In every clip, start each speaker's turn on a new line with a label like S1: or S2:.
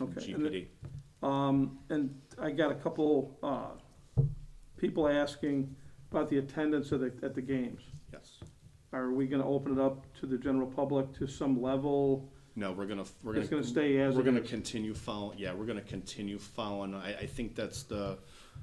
S1: okay. And
S2: GPD.
S1: Um, and I got a couple, uh, people asking about the attendance at the, at the games.
S2: Yes.
S1: Are we gonna open it up to the general public to some level?
S2: No, we're gonna, we're gonna.
S1: It's gonna stay as
S2: We're
S1: it
S2: gonna
S1: is?
S2: continue following, yeah, we're gonna continue following. I, I think that's the,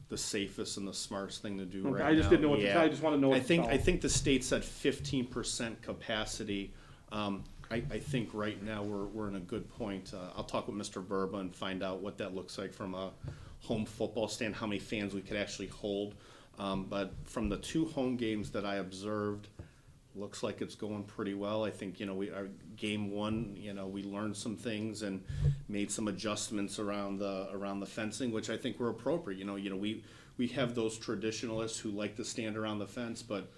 S2: the safest and the smartest thing to do right
S1: Okay,
S2: now.
S1: I just didn't know what to-
S2: Yeah.
S1: I just wanna know what
S2: I
S1: to
S2: think,
S1: tell
S2: I
S1: 'em.
S2: think the state said fifteen percent capacity. Um, I, I think right now we're, we're in a good point. Uh, I'll talk with Mr. Verba and find out what that looks like from a home football stand, how many fans we could actually hold. Um, but from the two home games that I observed, looks like it's going pretty well. I think, you know, we, our game one, you know, we learned some things and made some adjustments around the, around the fencing, which I think were appropriate. You know, you know, we, we have those traditionalists who like to stand around the fence, but,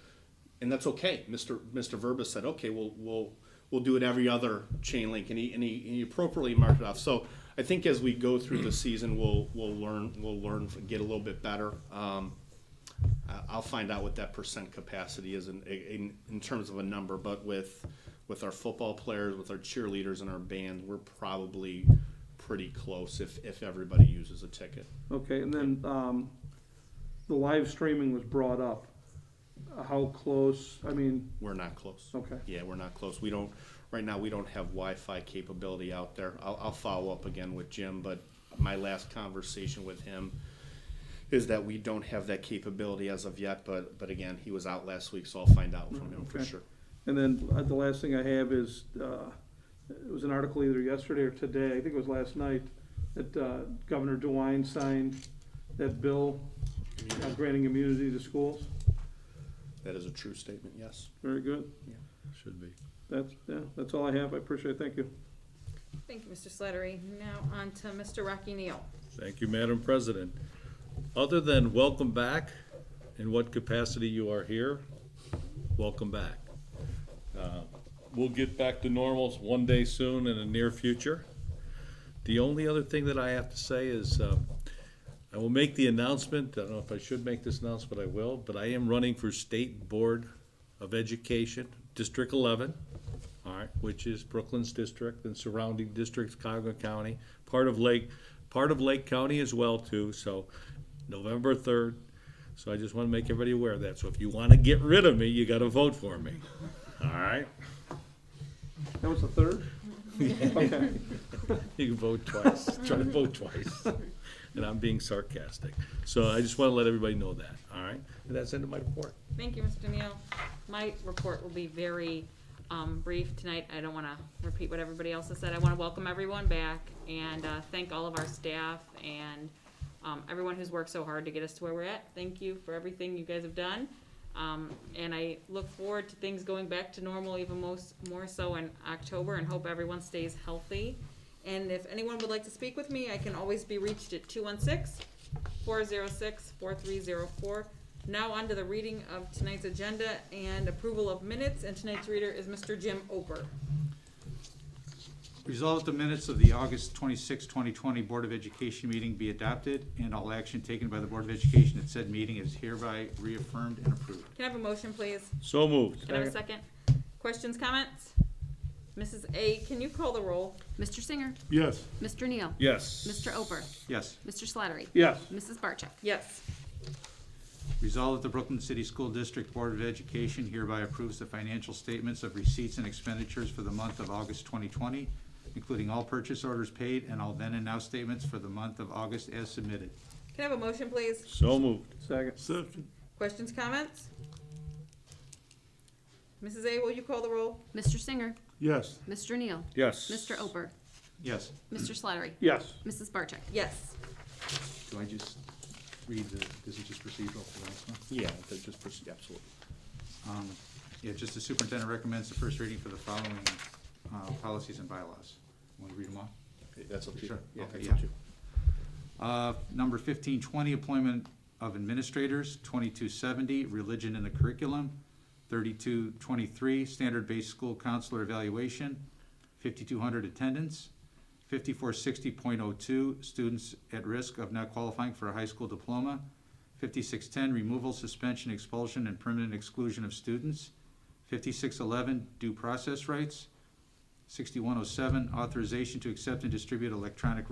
S2: and that's okay. Mr. Mr. Verba said, okay, we'll, we'll, we'll do it every other chain link, and he, and he, he appropriately marked it off. So I think as we go through the season, we'll, we'll learn, we'll learn, get a little bit better. Um, I- Uh, I'll find out what that percent capacity is in, in, in terms of a number, but with, with our football players, with our cheerleaders and our band, we're probably pretty close if, if everybody uses a ticket.
S1: Okay, and then, um, the live streaming was brought up. How close, I mean,
S2: We're not close.
S1: okay,
S2: Yeah, we're not close. We don't, right now, we don't have Wi-Fi capability out there. I'll, I'll follow up again with Jim, but my last conversation with him is that we don't have that capability as of yet, but, but again, he was out last week, so I'll find out from him for
S1: Okay.
S2: sure.
S1: And then uh, the last thing I have is, uh, it was an article either yesterday or today, I think it was last night, that uh, Governor DeWine signed that bill uh, granting immunity to schools.
S2: That is a true statement, yes.
S1: Very good.
S3: Should be.
S1: That's, yeah, that's all I have. I appreciate it. Thank you.
S4: Thank you, Mr. Slattery. Now on to Mr. Rocky Neal.
S3: Thank you, Madam President. Other than welcome back, in what capacity you are here, welcome back. Uh, We'll get back to normals one day soon in the near future. The only other thing that I have to say is, um, I will make the announcement, I don't know if I should make this announcement, I will, but I am running for State Board of Education, District eleven, all right, which is Brooklyn's district and surrounding districts, Cuyahoga County, part of Lake, part of Lake County as well too, so November third. So I just wanna make everybody aware of that, so if you wanna get rid of me, you gotta vote for me, all right?
S1: That was the third? Okay.
S3: You can vote twice, try to vote twice. And I'm being sarcastic. So I just want to let everybody know that, all right? And that's the end of my report.
S4: Thank you, Mr. Neal. My report will be very um, brief tonight. I don't want to repeat what everybody else has said. I want to welcome everyone back and uh, thank all of our staff and um, everyone who's worked so hard to get us to where we're at. Thank you for everything you guys have done. Um, And I look forward to things going back to normal even most, more so in October and hope everyone stays healthy. And if anyone would like to speak with me, I can always be reached at 216 four zero six four three zero four. Now on to the reading of tonight's agenda and approval of minutes, and tonight's reader is Mr. Jim Oper.
S5: Resolved the minutes of the August 26, 2020 Board of Education meeting be adopted, and all action taken by the Board of Education at said meeting is hereby reaffirmed and approved.
S4: Can I have a motion, please?
S3: So moved.
S4: Can I have a second? Questions, comments? Mrs. A, can you call the roll?
S6: Mr. Singer.
S3: Yes.
S6: Mr. Neal.
S3: Yes.
S6: Mr. Ober.
S5: Yes.
S6: Mr. Slattery.
S1: Yes.
S6: Mrs. Barcheck.
S4: Yes.
S5: Resolved that the Brooklyn City School District Board of Education hereby approves the financial statements of receipts and expenditures for the month of August 2020, including all purchase orders paid and all then and now statements for the month of August as submitted.
S4: Can I have a motion, please?
S3: So moved.
S1: Second.
S4: Questions, comments? Mrs. A, will you call the roll?
S6: Mr. Singer.
S3: Yes.
S6: Mr. Neal.
S3: Yes.
S6: Mr. Ober.
S5: Yes.
S6: Mr. Slattery.
S1: Yes.
S6: Mrs. Barcheck.
S4: Yes.
S5: Do I just read the, this is just procedural for the last one?
S2: Yeah, that just, pers- absolutely.
S5: Um, Yeah, just the superintendent recommends the first reading for the following uh, policies and bylaws. Want to read them all?
S2: That's up to you.
S5: Sure.
S2: Yeah,
S5: Okay,
S2: that's
S5: yeah.
S2: up to you.
S5: Uh, Number fifteen twenty, employment of administrators, twenty-two seventy, religion in the curriculum, thirty-two twenty-three, standard-based school counselor evaluation, fifty-two hundred attendance, fifty-four sixty point oh two, students at risk of not qualifying for a high school diploma, fifty-six ten, removal, suspension, expulsion, and permanent exclusion of students, fifty-six eleven, due process rights, sixty-one oh seven, authorization to accept and distribute electronic